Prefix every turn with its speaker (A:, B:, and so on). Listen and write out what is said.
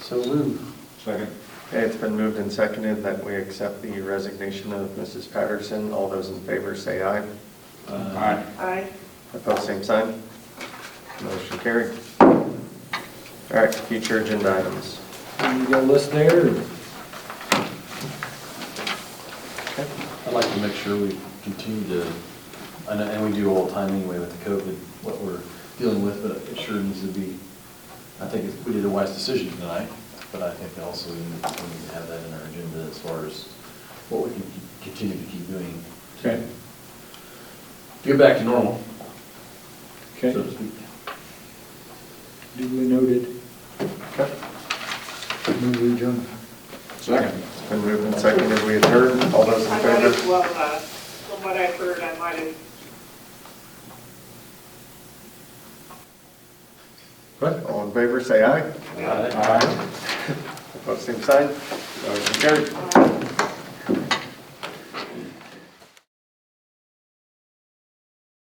A: So moved.
B: Second.
C: Okay, it's been moved and seconded that we accept the resignation of Mrs. Patterson. All those in favor say aye.
A: Uh,
B: Aye.
D: Aye.
C: Opposed, same sign. Motion carried. All right, future agenda items.
A: You got a list there?
E: I'd like to make sure we continue to, and, and we do all the time anyway with the COVID, what we're dealing with, but it sure needs to be, I think it's- we did a wise decision tonight, but I think also we need we need to have that in our agenda as far as what we can keep- continue to keep doing
B: Okay.
E: to get back to normal, so
B: Okay.
E: to speak.
B: Duly noted.
C: Okay.
A: Move adjourned.
B: Second.
C: It's been moved and seconded, we adjourn. All those in
D: I might as
C: favor?
D: well, uh, from what I've heard, I might have
C: All in favor, say aye.
E: Aye.
C: Opposed, same sign. Motion carried.
D: uh,